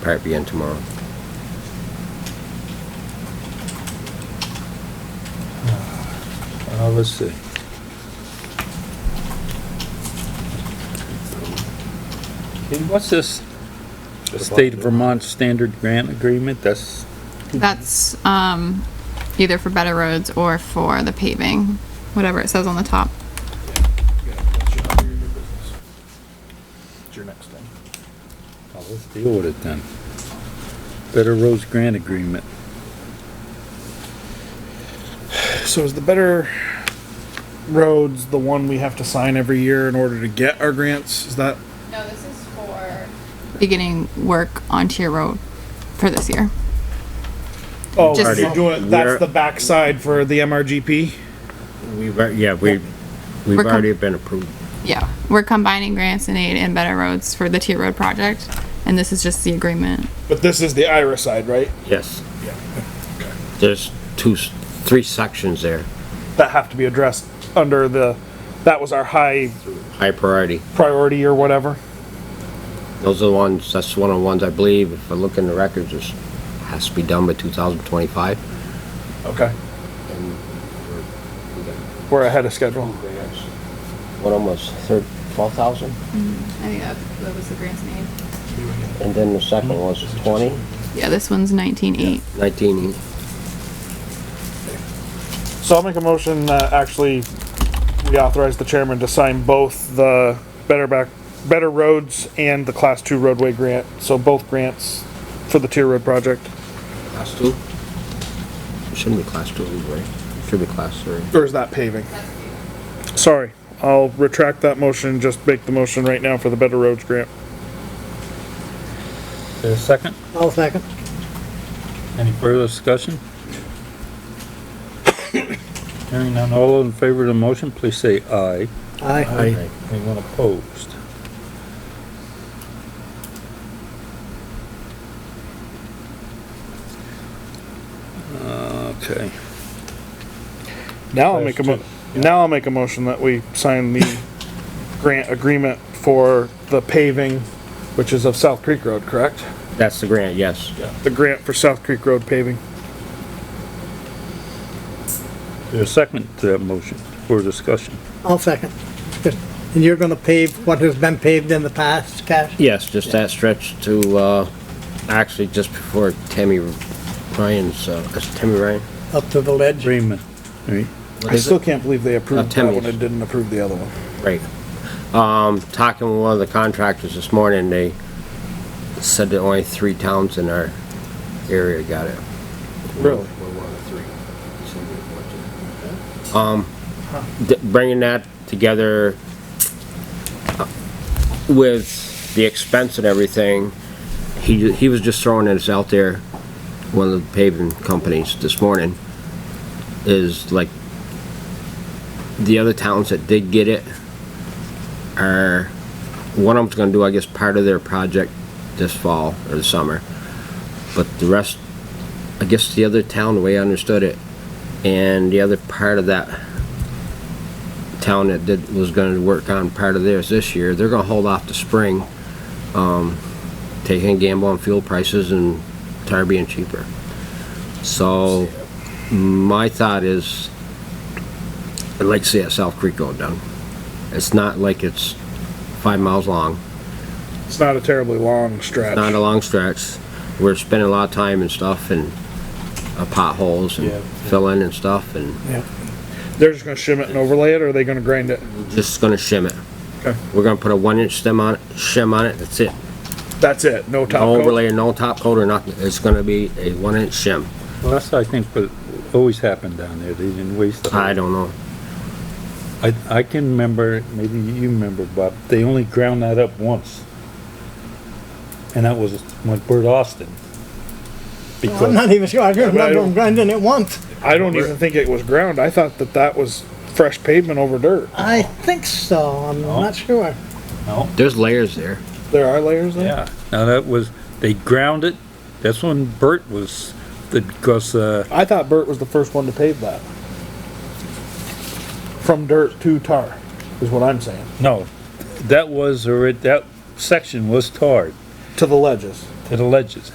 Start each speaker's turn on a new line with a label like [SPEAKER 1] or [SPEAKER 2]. [SPEAKER 1] part be in tomorrow.
[SPEAKER 2] Uh, let's see. Okay, What's this State of Vermont Standard Grant Agreement? That's,
[SPEAKER 3] That's um, either for better roads or for the paving, whatever it says on the top.
[SPEAKER 4] It's your next thing.
[SPEAKER 2] oh, let's deal with it then. Better Roads Grant Agreement.
[SPEAKER 4] So is the better roads the one we have to sign every year in order to get our grants? Is that
[SPEAKER 3] No, this is for. Beginning work onto your road for this year.
[SPEAKER 4] oh
[SPEAKER 3] Just-
[SPEAKER 4] you're doing
[SPEAKER 1] We're-
[SPEAKER 4] that's the backside for the MRGP?
[SPEAKER 1] We've, al- yeah, we, we've
[SPEAKER 3] We're com-
[SPEAKER 1] already been approved.
[SPEAKER 3] Yeah, we're combining grants and aid and better roads for the tier road project, and this is just the agreement.
[SPEAKER 4] But this is the IRA side, right?
[SPEAKER 1] Yes. There's two, s- three sections there,
[SPEAKER 4] That have to be addressed under the that was our high
[SPEAKER 1] high priority.
[SPEAKER 4] priority or whatever.
[SPEAKER 1] Those are the ones, that's one of the ones I believe, if I look in the records, it has to be done by 2025.
[SPEAKER 4] Okay. We're ahead of schedule.
[SPEAKER 1] One of them was thir- 12,000,
[SPEAKER 3] I think that, that was the grants and aid.
[SPEAKER 1] and then the second one was 20,
[SPEAKER 3] Yeah, this one's nineteen eight.
[SPEAKER 1] 19.
[SPEAKER 4] So I'll make a motion that actually we authorize the chairman to sign both the Better Back, Better Roads and the Class Two roadway grant, so both grants for the tier road project.
[SPEAKER 1] Class 2? It Shouldn't be class 2, right? Should be class 3.
[SPEAKER 4] Or is that paving? Sorry, I'll retract that motion, just make the motion right now for the Better Roads grant.
[SPEAKER 2] Is there a second?
[SPEAKER 5] I'll second.
[SPEAKER 2] Any further discussion? Hearing none, all in favor of the motion, please say aye.
[SPEAKER 5] Aye.
[SPEAKER 2] Anyone opposed? Okay.
[SPEAKER 4] Now I'll make a mo- now I'll make a motion that we sign the grant agreement for the paving, which is of South Creek Road, correct?
[SPEAKER 1] That's the grant, yes.
[SPEAKER 4] The grant for South Creek Road paving.
[SPEAKER 2] There's a second to that motion for discussion.
[SPEAKER 5] I'll second. Just- And you're gonna pave what has been paved in the past, Cash?
[SPEAKER 1] Yes, just that stretch to, uh, actually just before Tammy Ryan's, uh, is it Tammy Ryan?
[SPEAKER 5] Up to the ledge?
[SPEAKER 2] Freeman, right?
[SPEAKER 1] What
[SPEAKER 4] I
[SPEAKER 1] is it?
[SPEAKER 4] still can't believe they approved that
[SPEAKER 1] Artemius.
[SPEAKER 4] one and didn't approve the other one.
[SPEAKER 1] Right. Um, talking with one of the contractors this morning, they said that only three towns in our area got it.
[SPEAKER 4] Really?
[SPEAKER 1] We're one of three. Um, th- bringing that together uh, with the expense and everything, he, he was just throwing this out there, one of the paving companies this morning, is like, the other towns that did get it are, one of them's gonna do, I guess, part of their project this fall or the summer. But the rest, I guess the other town, the way I understood it, and the other part of that town that did, was gonna work on part of theirs this year, they're gonna hold off the spring, um, taking a gamble on fuel prices and tar being cheaper. So, my thought is, I'd like to see that South Creek Road done. It's not like it's five miles long,
[SPEAKER 4] It's not a terribly long stretch.
[SPEAKER 1] not a long stretch. We're spending a lot of time and stuff and uh, potholes and
[SPEAKER 2] Yeah.
[SPEAKER 1] filling and stuff and
[SPEAKER 4] They're just gonna shim it and overlay it, or are they gonna grind it?
[SPEAKER 1] just gonna shim it.
[SPEAKER 4] Mm-hmm. Okay.
[SPEAKER 1] We're gonna put a one inch stem on, it, shim on it, that's it.
[SPEAKER 4] That's it, no top
[SPEAKER 1] No
[SPEAKER 4] coat?
[SPEAKER 1] overlay, no top coat or nothing. It's gonna be a one inch shim.
[SPEAKER 2] Well, that's, I think, what always happened down there. They didn't waste the.
[SPEAKER 1] I don't know.
[SPEAKER 2] I, I can remember, maybe you remember, Bob, they only ground that up once. And that was with Bert Austin.
[SPEAKER 5] I'm
[SPEAKER 2] Because,
[SPEAKER 5] not even sure, I
[SPEAKER 4] but I
[SPEAKER 5] remember
[SPEAKER 4] don't-
[SPEAKER 5] them grinding it once.
[SPEAKER 4] I don't even think it was ground, I thought that that was fresh pavement over dirt.
[SPEAKER 5] I think so, I'm
[SPEAKER 2] No.
[SPEAKER 5] not sure.
[SPEAKER 2] no,
[SPEAKER 1] There's layers there.
[SPEAKER 4] There are layers there?
[SPEAKER 2] yeah, now that was, they ground it, that's when Bert was, because, uh,
[SPEAKER 4] I thought Bert was the first one to pave that. From dirt to tar, is what I'm saying,
[SPEAKER 2] no, that was, alre- that section was tarred.
[SPEAKER 4] to the ledges.
[SPEAKER 2] it alleges.